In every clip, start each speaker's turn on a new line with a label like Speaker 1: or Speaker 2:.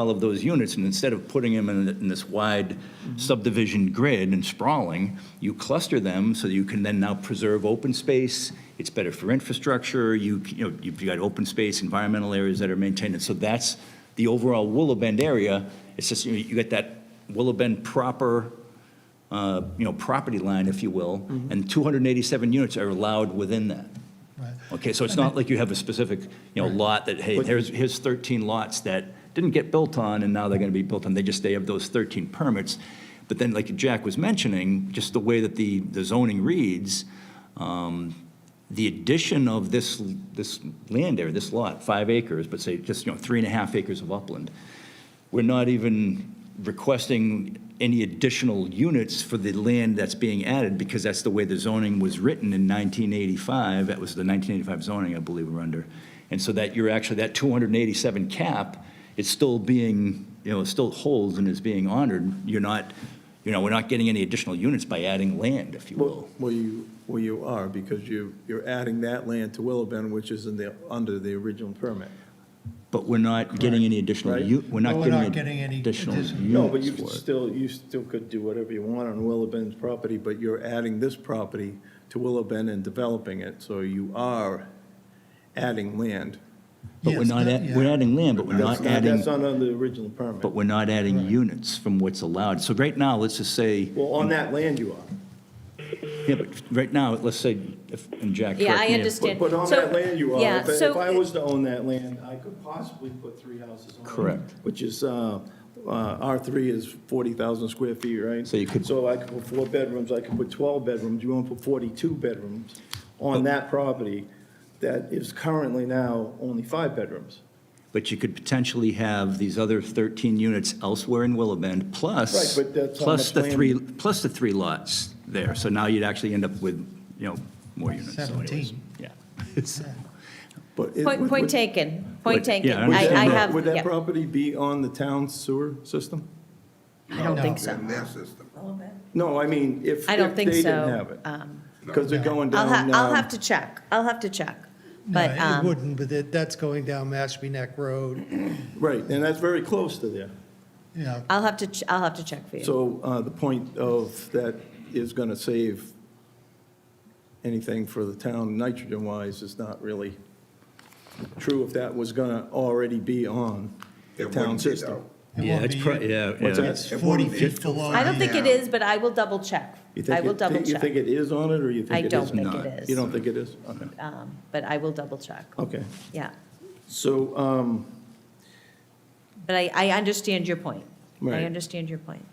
Speaker 1: all of those units, and instead of putting them in, in this wide subdivision grid and sprawling, you cluster them so that you can then now preserve open space. It's better for infrastructure. You, c- you know, you've got open space, environmental areas that are maintained. And so that's the overall Willow Bend area. It's just, you know, you get that Willow Bend proper, uh, you know, property line, if you will, and 287 units are allowed within that. Okay, so it's not like you have a specific, you know, lot that, hey, here's, here's 13 lots that didn't get built on, and now they're going to be built on, they just, they have those 13 permits. But then, like Jack was mentioning, just the way that the, the zoning reads, um, the addition of this, this land area, this lot, five acres, but say just, you know, three and a half acres of upland, we're not even requesting any additional units for the land that's being added, because that's the way the zoning was written in 1985. That was the 1985 zoning, I believe, we're under. And so that you're actually, that 287 cap is still being, you know, still holds and is being honored. You're not, you know, we're not getting any additional units by adding land, if you will.
Speaker 2: Well, well, you, well, you are, because you, you're adding that land to Willow Bend, which is in the, under the original permit.
Speaker 1: But we're not getting any additional,
Speaker 2: Right.
Speaker 1: u- we're
Speaker 3: No,
Speaker 1: not
Speaker 3: we're not
Speaker 1: getting
Speaker 3: getting
Speaker 1: any
Speaker 3: any
Speaker 1: additional units
Speaker 3: additional-
Speaker 2: No, but you
Speaker 1: for
Speaker 2: could
Speaker 1: it.
Speaker 2: still, you still could do whatever you want on Willow Bend's property, but you're adding this property to Willow Bend and developing it, so you are adding land.
Speaker 1: But we're
Speaker 3: Yes,
Speaker 1: not,
Speaker 3: that-
Speaker 1: add- we're
Speaker 3: yeah.
Speaker 1: adding land, but we're
Speaker 2: That's
Speaker 1: not adding.
Speaker 2: That's not under the original permit.
Speaker 1: But we're not adding units from what's allowed. So right now, let's just say,
Speaker 2: Well, on that land you are.
Speaker 1: yeah, but right now, let's say, if- and Jack,
Speaker 4: Yeah,
Speaker 1: correct
Speaker 4: I
Speaker 1: me if-
Speaker 4: understand.
Speaker 2: But on
Speaker 4: So-
Speaker 2: that land you are.
Speaker 4: yeah,
Speaker 2: If I-
Speaker 4: so-
Speaker 2: If I was to own that land, I could possibly put three houses on it.
Speaker 1: Correct.
Speaker 2: Which is, uh, uh, R3 is 40,000 square feet, right?
Speaker 1: So you could-
Speaker 2: So I could put four bedrooms, I could put 12 bedrooms, you want to put 42 bedrooms on that property that is currently now only five bedrooms.
Speaker 1: But you could potentially have these other 13 units elsewhere in Willow Bend, plus,
Speaker 2: Right, but that's how
Speaker 1: plus
Speaker 2: much
Speaker 1: the
Speaker 2: land-
Speaker 1: three, plus the three lots there. So now you'd actually end up with, you know, more units. So anyways,
Speaker 3: 17.
Speaker 1: Yeah. So-
Speaker 2: But it-
Speaker 4: Point,
Speaker 2: would-
Speaker 4: point
Speaker 2: would-
Speaker 4: taken,
Speaker 1: Would-
Speaker 4: point taken.
Speaker 1: yeah, I
Speaker 4: I, I
Speaker 1: understand that.
Speaker 4: have,
Speaker 2: Would that
Speaker 4: yeah,
Speaker 2: property be on the town sewer system?
Speaker 4: I don't think so.
Speaker 5: in their system.
Speaker 2: No, I mean, if
Speaker 4: I don't
Speaker 2: if
Speaker 4: think
Speaker 2: they didn't
Speaker 4: so.
Speaker 2: have it.
Speaker 4: Um,
Speaker 2: Because they're going
Speaker 4: I'll
Speaker 2: down.
Speaker 4: have, I'll
Speaker 2: um,
Speaker 4: have to check, I'll have to check.
Speaker 3: No,
Speaker 4: But,
Speaker 3: It
Speaker 4: um,
Speaker 3: wouldn't, but that- that's going down Mashpee Neck Road,
Speaker 2: Right, and that's very close to there.
Speaker 3: yeah.
Speaker 4: I'll have to, ch- I'll have to check for you.
Speaker 2: So uh, the point of that is going to save anything for the town nitrogen-wise is not really true if that was going to already be on the
Speaker 5: It
Speaker 2: town
Speaker 5: wouldn't be,
Speaker 2: system.
Speaker 5: though.
Speaker 3: It
Speaker 1: Yeah,
Speaker 3: won't
Speaker 1: it's,
Speaker 3: be-
Speaker 1: pro- yeah.
Speaker 2: What's
Speaker 1: yeah.
Speaker 2: that?
Speaker 3: It's
Speaker 5: It won't
Speaker 3: 40
Speaker 5: be.
Speaker 3: feet below. uh,
Speaker 4: I don't think it
Speaker 5: Yeah.
Speaker 4: is, but I will double check.
Speaker 2: You think
Speaker 4: I will
Speaker 2: it-
Speaker 4: double
Speaker 2: You think
Speaker 4: check,
Speaker 2: it is on it, or you think
Speaker 4: I
Speaker 2: it
Speaker 4: don't
Speaker 2: isn't?
Speaker 4: think it
Speaker 2: Not.
Speaker 4: is.
Speaker 2: You don't think it is? Okay.
Speaker 4: um, but I will double check,
Speaker 2: Okay,
Speaker 4: yeah.
Speaker 2: so, um,
Speaker 4: But I, I understand your point. I
Speaker 2: Right.
Speaker 4: understand your point.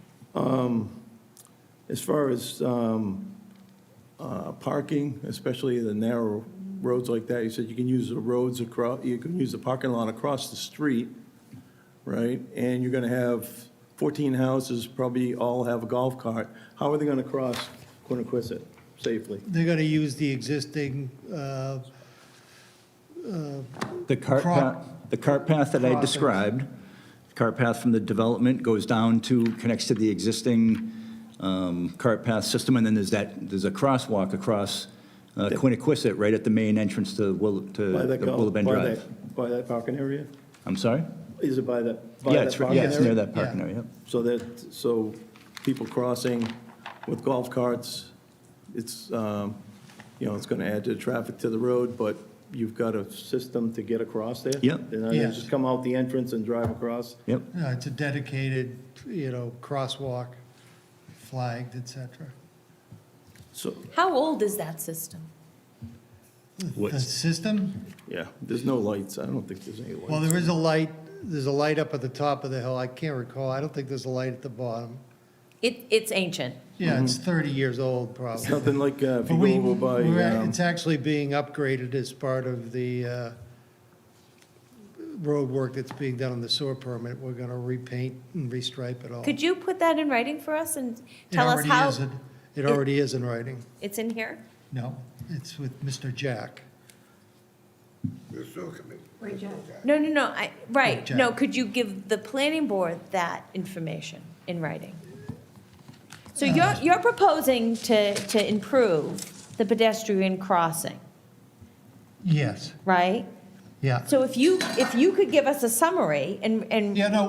Speaker 2: As far as um, uh, parking, especially the narrow roads like that, you said you can use the roads across, you can use the parking lot across the street, right? And you're going to have 14 houses, probably all have a golf cart. How are they going to cross Quiniquisette safely?
Speaker 3: They're going to use the existing, uh,
Speaker 1: The cart
Speaker 3: Cro-
Speaker 1: path, the cart path that I
Speaker 3: Crossings.
Speaker 1: described, cart path from the development goes down to, connects to the existing um, cart path system, and then there's that, there's a crosswalk across uh, Quiniquisette, right at the main entrance to Will, to
Speaker 2: By that
Speaker 1: the
Speaker 2: golf-
Speaker 1: Willow Bend
Speaker 2: by
Speaker 1: Drive.
Speaker 2: that- By that parking area?
Speaker 1: I'm sorry?
Speaker 2: Is it by that, by
Speaker 1: Yeah,
Speaker 2: that
Speaker 1: it's, right-
Speaker 2: parking
Speaker 1: yeah,
Speaker 2: area?
Speaker 1: it's near that
Speaker 3: Yeah.
Speaker 1: parking area, yep.
Speaker 2: So that, so people crossing with golf carts, it's, um, you know, it's going to add to the traffic to the road, but you've got a system to get across there?
Speaker 1: Yep.
Speaker 2: And they
Speaker 3: Yes.
Speaker 2: just come out the entrance and drive across?
Speaker 1: yep.
Speaker 3: no, it's a dedicated, you know, crosswalk flagged, et cetera.
Speaker 2: So,
Speaker 4: How old is that system?
Speaker 3: The system,
Speaker 2: yeah, there's no lights. I don't think there's any lights.
Speaker 3: well, there is a light, there's a light up at the top of the hill, I can't recall, I don't think there's a light at the bottom.
Speaker 4: It, it's ancient.
Speaker 3: Yeah, it's 30 years old, probably.
Speaker 2: It's Nothing like uh, if
Speaker 3: But
Speaker 2: you
Speaker 3: we,
Speaker 2: go over by,
Speaker 3: we're at-
Speaker 2: um,
Speaker 3: it's actually being upgraded as part of the uh, road work that's being done on the sewer permit. We're going to repaint and restripe it all.
Speaker 4: Could you put that in writing for us and
Speaker 3: It
Speaker 4: tell us
Speaker 3: already
Speaker 4: how?
Speaker 3: is in- It already is in writing.
Speaker 4: It's in here?
Speaker 3: No, it's with Mr. Jack.
Speaker 5: The sewer committee.
Speaker 4: No, no, no, I, right,
Speaker 3: Okay.
Speaker 4: no, could you give the planning board that information in writing? So
Speaker 3: Uh,
Speaker 4: you're, you're proposing to, to improve the pedestrian crossing,
Speaker 3: Yes,
Speaker 4: right?
Speaker 3: yeah.
Speaker 4: So if you, if you could give us a summary and, and
Speaker 3: Yeah, no,